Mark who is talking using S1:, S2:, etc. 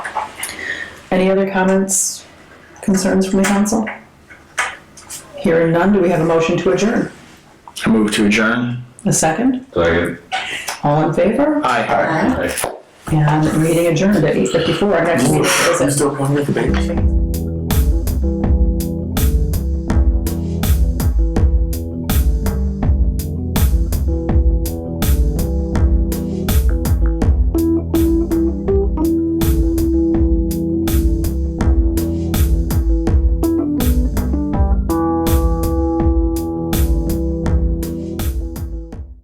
S1: Any other comments, concerns from the council? Hearing none, do we have a motion to adjourn?
S2: I move to adjourn.
S1: A second?
S3: Second.
S1: All in favor?
S2: Aye.
S3: Aye.
S1: And meeting adjourned at eight fifty-four, our next meeting is at
S4: Still going with the baby?